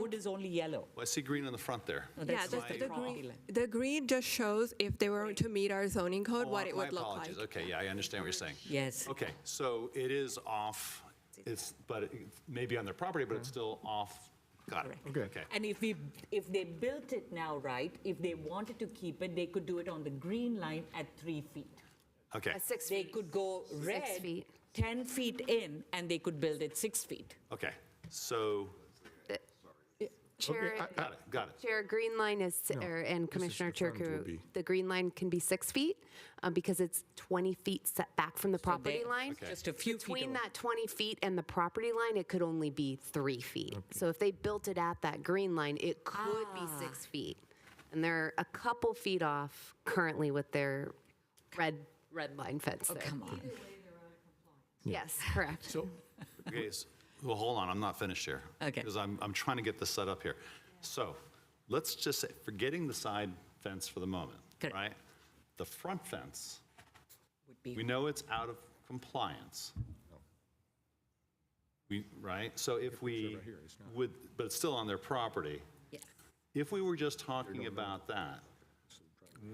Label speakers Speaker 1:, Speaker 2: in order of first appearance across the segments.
Speaker 1: road is only yellow.
Speaker 2: Well, I see green on the front there.
Speaker 1: No,
Speaker 3: Yeah,
Speaker 1: that's
Speaker 3: the,
Speaker 1: not
Speaker 3: the
Speaker 1: property
Speaker 3: green,
Speaker 1: line.
Speaker 3: the green just shows if they were to meet our zoning code,
Speaker 2: Oh,
Speaker 3: what
Speaker 2: I-
Speaker 3: it would
Speaker 2: my
Speaker 3: look
Speaker 2: apologies.
Speaker 3: like.
Speaker 2: Okay, yeah, I understand what you're saying.
Speaker 1: Yes.
Speaker 2: Okay, so it is off, it's, but it- maybe on their property, but it's
Speaker 3: Mm-hmm.
Speaker 2: still off, got it.
Speaker 1: Correct. And if we, if they built it now right, if they wanted to keep it, they could do it on the green line at three feet.
Speaker 2: Okay,
Speaker 4: At six
Speaker 1: They
Speaker 4: feet.
Speaker 1: could go red,
Speaker 4: feet.
Speaker 1: 10 feet in, and they could build it six feet.
Speaker 2: okay, so,
Speaker 4: Chair,
Speaker 2: got it, got it.
Speaker 4: Chair, green line is,
Speaker 5: No,
Speaker 4: or-
Speaker 5: this
Speaker 4: and
Speaker 5: is
Speaker 4: Commissioner
Speaker 5: confirmed will
Speaker 4: Turku,
Speaker 5: be-
Speaker 4: the green line can be six feet uh, because it's 20 feet setback from the property
Speaker 1: they-
Speaker 4: line.
Speaker 2: Okay.
Speaker 1: Just a few feet
Speaker 4: Between
Speaker 1: away.
Speaker 4: that 20 feet and the property line, it could only be three feet. So if they built it at that green line, it could be six feet. And they're a couple feet off currently with their red, red line fence there.
Speaker 1: Oh, Come on.
Speaker 4: Yes, correct.
Speaker 5: So,
Speaker 2: Okay, s- well, hold on, I'm not finished here.
Speaker 1: Uh-huh. Okay.
Speaker 2: Because I'm, I'm trying to get this set up here. So, let's just say, forgetting the side fence for the moment,
Speaker 1: Correct.
Speaker 2: right? The front fence,
Speaker 1: Would be-
Speaker 2: we know it's out of compliance. We, right, so if we, would, but it's still on their property.
Speaker 1: Yeah.
Speaker 2: If we were just talking about that,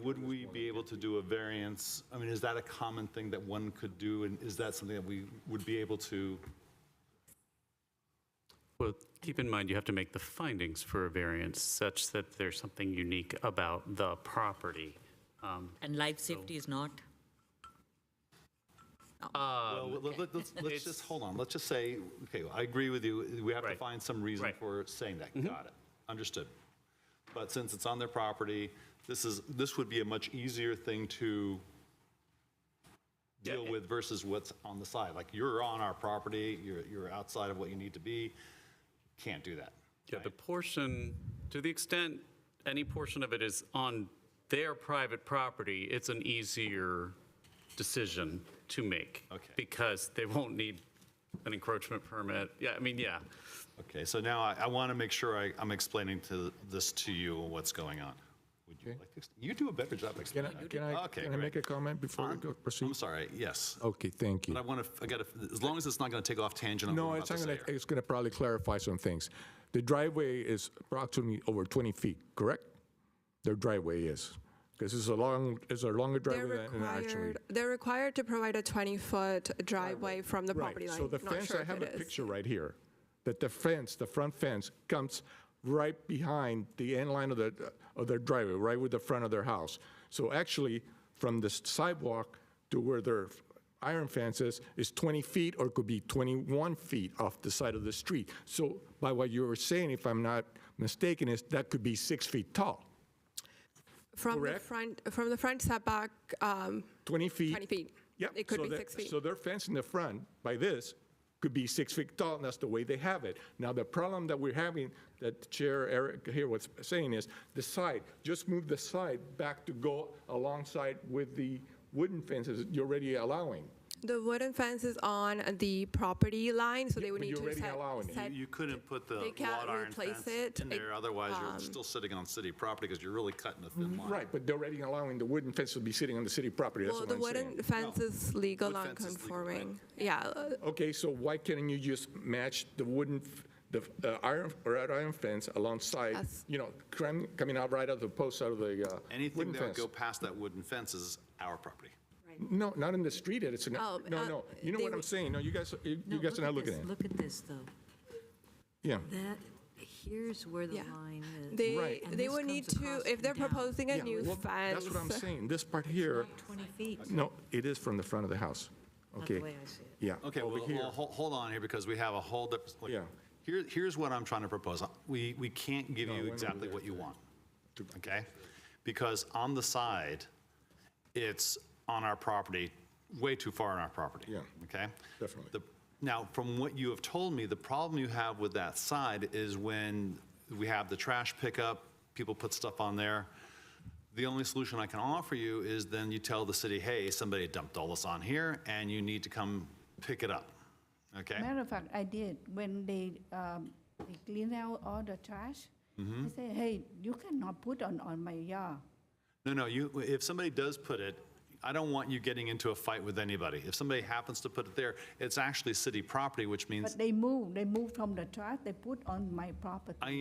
Speaker 2: would we be able to do a variance? I mean, is that a common thing that one could do, and is that something that we would be able to?
Speaker 6: Well, keep in mind, you have to make the findings for a variance such that there's something unique about the property. Um,
Speaker 1: And life safety is not?
Speaker 2: Well,
Speaker 6: Um,
Speaker 2: let- let- let's, let's just, hold on, let's just say, okay, I agree with you, we have to
Speaker 6: Right.
Speaker 2: find some reason
Speaker 6: Right. Mm-hmm.
Speaker 2: for saying that. Got it, understood. But since it's on their property, this is, this would be a much easier thing to deal with versus what's on the side. Like, you're on our property, you're, you're outside of what you need to be, can't do that.
Speaker 6: Yeah, the portion, to the extent any portion of it is on their private property, it's an easier decision to make.
Speaker 2: Okay.
Speaker 6: Because they won't need an encroachment permit. Yeah, I mean, yeah.
Speaker 2: Okay, so now I, I want to make sure I, I'm explaining to this to you, what's going on. Would you like to, ex- you do a better job
Speaker 5: can I,
Speaker 2: explaining. that.
Speaker 5: can I,
Speaker 2: Okay,
Speaker 5: can I
Speaker 2: great.
Speaker 5: make a comment before we go
Speaker 2: I'm
Speaker 5: proceed?
Speaker 2: sorry, yes.
Speaker 5: Okay, thank you.
Speaker 2: But I want to, I got to, as long as it's not going to take off tangent on
Speaker 5: No,
Speaker 2: what I'm
Speaker 5: it's
Speaker 2: about to
Speaker 5: not
Speaker 2: say
Speaker 5: gonna,
Speaker 2: here.
Speaker 5: it's gonna probably clarify some things. The driveway is approximately over 20 feet, correct? Their driveway is, because it's a long, it's a longer
Speaker 3: They're
Speaker 5: driveway than an actual.
Speaker 3: required, they're required to provide a 20-foot driveway from the property line.
Speaker 5: Right, so the
Speaker 3: Not
Speaker 5: fence,
Speaker 3: sure
Speaker 5: I
Speaker 3: if
Speaker 5: have a
Speaker 3: it is.
Speaker 5: picture right here, that the fence, the front fence comes right behind the end line of the, uh, of their driveway, right with the front of their house. So actually, from the sidewalk to where their iron fence is, is 20 feet or it could be 21 feet off the side of the street. So by what you were saying, if I'm not mistaken, is that could be six feet tall.
Speaker 3: From the
Speaker 5: correct?
Speaker 3: front, from the front setback, um,
Speaker 5: 20 feet.
Speaker 3: 20 feet.
Speaker 5: Yep.
Speaker 3: It could
Speaker 5: so
Speaker 3: be
Speaker 5: that-
Speaker 3: six feet.
Speaker 5: So their fence in the front, by this, could be six feet tall, and that's the way they have it. Now, the problem that we're having, that Chair Eric here was saying is, the side, just move the side back to go alongside with the wooden fences you're already allowing.
Speaker 3: the wooden fence is on the property line, so they would
Speaker 5: but
Speaker 3: need
Speaker 5: you're
Speaker 3: to
Speaker 5: already
Speaker 3: set.
Speaker 5: allowing it.
Speaker 3: set-
Speaker 2: You couldn't put the
Speaker 3: They can't
Speaker 2: wrought iron
Speaker 3: replace
Speaker 2: fence
Speaker 3: it.
Speaker 2: in there,
Speaker 3: It- um,
Speaker 2: otherwise you're still sitting on city property because you're really cutting a thin line.
Speaker 5: Mm, Right, but they're already allowing the wooden fence to be sitting on the city property, that's
Speaker 3: Well,
Speaker 5: what
Speaker 3: the
Speaker 5: I'm
Speaker 3: wooden
Speaker 5: saying.
Speaker 3: fence is legal,
Speaker 2: Wood fence is legal, right?
Speaker 3: non-conforming. Yeah, uh,
Speaker 5: Okay, so why can't you just match the wooden, f- the uh, iron, wrought iron fence alongside,
Speaker 3: That's-
Speaker 5: you know, cram- coming out right out of the post out of the uh,
Speaker 2: Anything
Speaker 5: wooden
Speaker 2: that would
Speaker 5: fence?
Speaker 2: go past that wooden fence is our property.
Speaker 5: No, not in the street, Ed, it's an, no,
Speaker 3: Oh, uh,
Speaker 5: no, you know
Speaker 3: they
Speaker 5: what I'm
Speaker 3: would-
Speaker 5: saying, no, you guys, you you guys are not looking at it.
Speaker 7: Look at this, though.
Speaker 5: Yeah,
Speaker 7: That, here's where the
Speaker 3: Yeah.
Speaker 7: line is.
Speaker 3: they,
Speaker 5: Right.
Speaker 7: And
Speaker 3: they
Speaker 7: this
Speaker 3: would need
Speaker 7: comes
Speaker 3: to,
Speaker 7: across
Speaker 3: if they're
Speaker 7: and down.
Speaker 3: proposing a
Speaker 5: yeah,
Speaker 3: new
Speaker 5: well,
Speaker 3: fence.
Speaker 5: that's what I'm saying, this part here,
Speaker 7: Not 20 feet.
Speaker 5: no, it is from the front of the house,
Speaker 7: Not the
Speaker 5: okay?
Speaker 7: way I see it.
Speaker 5: Yeah.
Speaker 2: Okay,
Speaker 5: over
Speaker 2: well,
Speaker 5: here.
Speaker 2: well, hol- hold on here because we have a whole different. look,
Speaker 5: Yeah.
Speaker 2: Here, here's what I'm trying to propose. We, we can't give
Speaker 5: went
Speaker 2: you
Speaker 5: over
Speaker 2: exactly
Speaker 5: there
Speaker 2: what you want, okay? Because on the side, it's on our property, way too far on our property.
Speaker 5: Yeah,
Speaker 2: Okay?
Speaker 5: definitely.
Speaker 2: The- Now, from what you have told me, the problem you have with that side is when we have the trash pickup, people put stuff on there. The only solution I can offer you is then you tell the city, hey, somebody dumped all this on here and you need to come pick it up. Okay?
Speaker 8: Matter of fact, I did, when they, um, they cleaned out all the trash,
Speaker 2: Mm-hmm.
Speaker 8: they say, hey, you cannot put on, on my yard.
Speaker 2: No, no, you, if somebody does put it, I don't want you getting into a fight with anybody. If somebody happens to put it there, it's actually city property, which means
Speaker 8: But they move, they move from the trash, they put on my property.